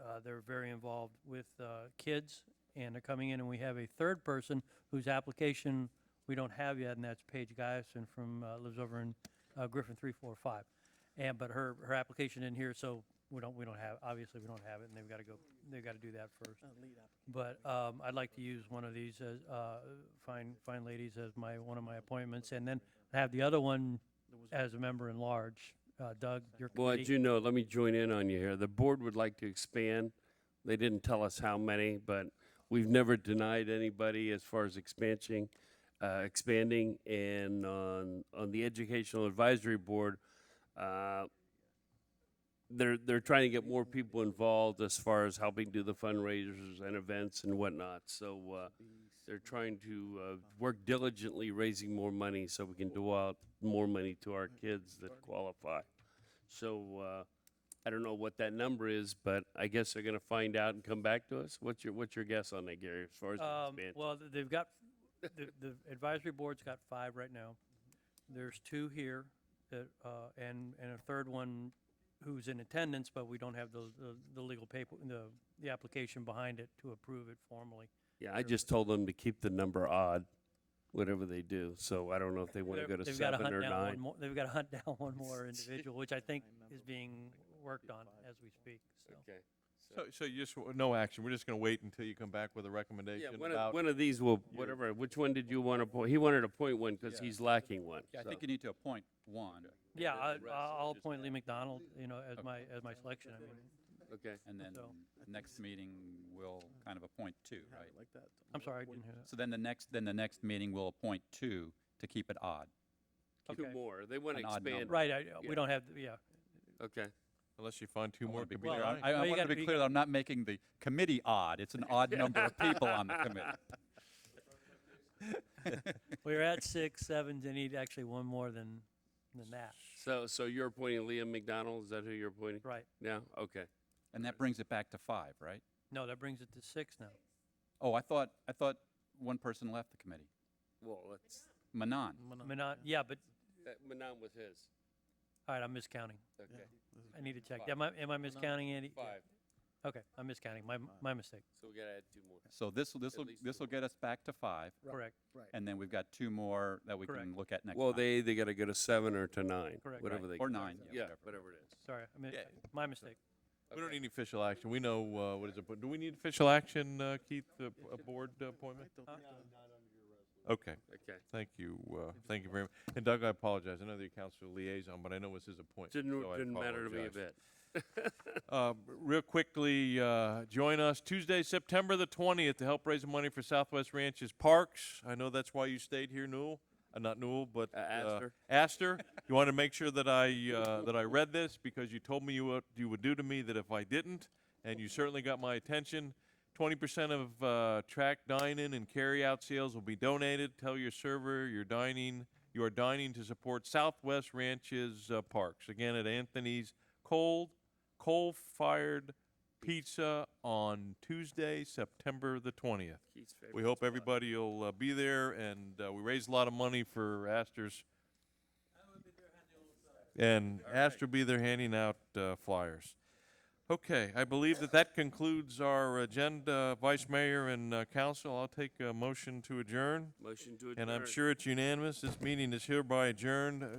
uh, They're very involved with uh, kids, and they're coming in, and we have a third person whose application we don't have yet, and that's Paige Guyson from, uh, lives over in uh, Griffin 345. And, but her, her application in here, so we don't, we don't have, obviously, we don't have it, and they've got to go, they've got to do that first. But um, I'd like to use one of these as, uh, fine, fine ladies as my, one of my appointments, and then have the other one as a member in large. Uh, Doug, your Well, committee. as you know, let me join in on you here. The board would like to expand. They didn't tell us how many, but we've never denied anybody as far as expansion, uh, expanding. And on, on the Educational Advisory Board, uh, they're, they're trying to get more people involved as far as helping do the fundraisers and events and whatnot. So, uh, they're trying to, uh, work diligently raising more money so we can do out more money to our kids that qualify. So, uh, I don't know what that number is, but I guess they're gonna find out and come back to us. What's your, what's your guess on that, Gary, as far as the Um, expansion? well, th- they've got, the, the advisory board's got five right now. There's two here that, uh, and, and a third one who's in attendance, but we don't have the, the, the legal paper, the, the application behind it to approve it formally. Yeah, I just told them to keep the number odd, whatever they do, so I don't know if they wanna They're- go to they've gotta seven hunt or down one nine. more- They've got to hunt down one more individual, which I think is being worked on as we speak, so. Okay. So, so you just, w- no action, we're just gonna wait until you come back with a Yeah, recommendation one of, about, one of these will, whatever, which one did you wanna point? He wanted to point one, cause he's lacking one. Yeah, I so. think you need to appoint one, Yeah, I, rest I'll I'll just appoint Lee McDonald, you know, as my, as my selection, I mean, Okay. and then So- next meeting we'll kind of appoint two, right? I'm sorry, I didn't hear that. So then the next, then the next meeting we'll appoint two to keep it odd. Two Okay. more. They wanna An odd expand. number. Right, I, Yeah. we don't have, yeah, Okay. unless you find two I more wanna be could be clear on- fine. I, No, I you want gotta- to you be clear, that I'm not making the committee odd, it's an odd number of people on the committee. We We're at six, seven, and need actually one more than, than that, So, so you're appointing Liam McDonald? Is that who you're appointing? right? Yeah, okay. And that brings it back to five, right? No, that brings it to six now. Oh, I thought, I thought one person left the committee, Well, that's, Manon. Manon, yeah, but, that Manon was his. all right, I'm miscounting. Okay, I need to check. Am I, am I miscounting, Andy? five. Okay, I'm miscounting. My, my mistake, So we gotta add two more. So this, this will, least this will get us back to five, correct. and then we've got two more that we Correct. can look at next time. Well, they either gotta go to seven or to nine, Correct. whatever they. Or go. nine, yeah, Yeah, whatever. whatever it is. Sorry, I mean, Yeah. my mistake. We don't need any official action, we know, uh, what is it, but do we need official action, uh, Keith, a, a board appointment? Okay, Okay. thank you, uh, thank you very much. And Doug, I apologize, I know that you're council liaison, but I know it's his appointment. Didn't, so I didn't matter to me a apologize. bit. Uh, real quickly, uh, join us Tuesday, September the 20th to help raise money for Southwest Ranches Parks. I know that's why you stayed here, Newell. Uh, not Newell, but Uh, Astor. Astor. You want to make sure that I uh, that I read this because you told me you what you would do to me that if I didn't, and you certainly got my attention. 20% of uh, track dine-in and carry-out sales will be donated. Tell your server your dining you are dining to support Southwest Ranches uh, Parks. Again, at Anthony's Cold coal fired pizza on Tuesday, September the 20th. Keith's We favorite hope spot. everybody will uh, be there, and uh, we raised a lot of money for Astor's. And Astor will be there handing out uh, flyers. Okay, I believe that that concludes our agenda, Vice Mayor and uh, Council. I'll take a motion to adjourn, Motion to adjourn. and I'm sure it's unanimous. This meeting is hereby adjourned. Uh,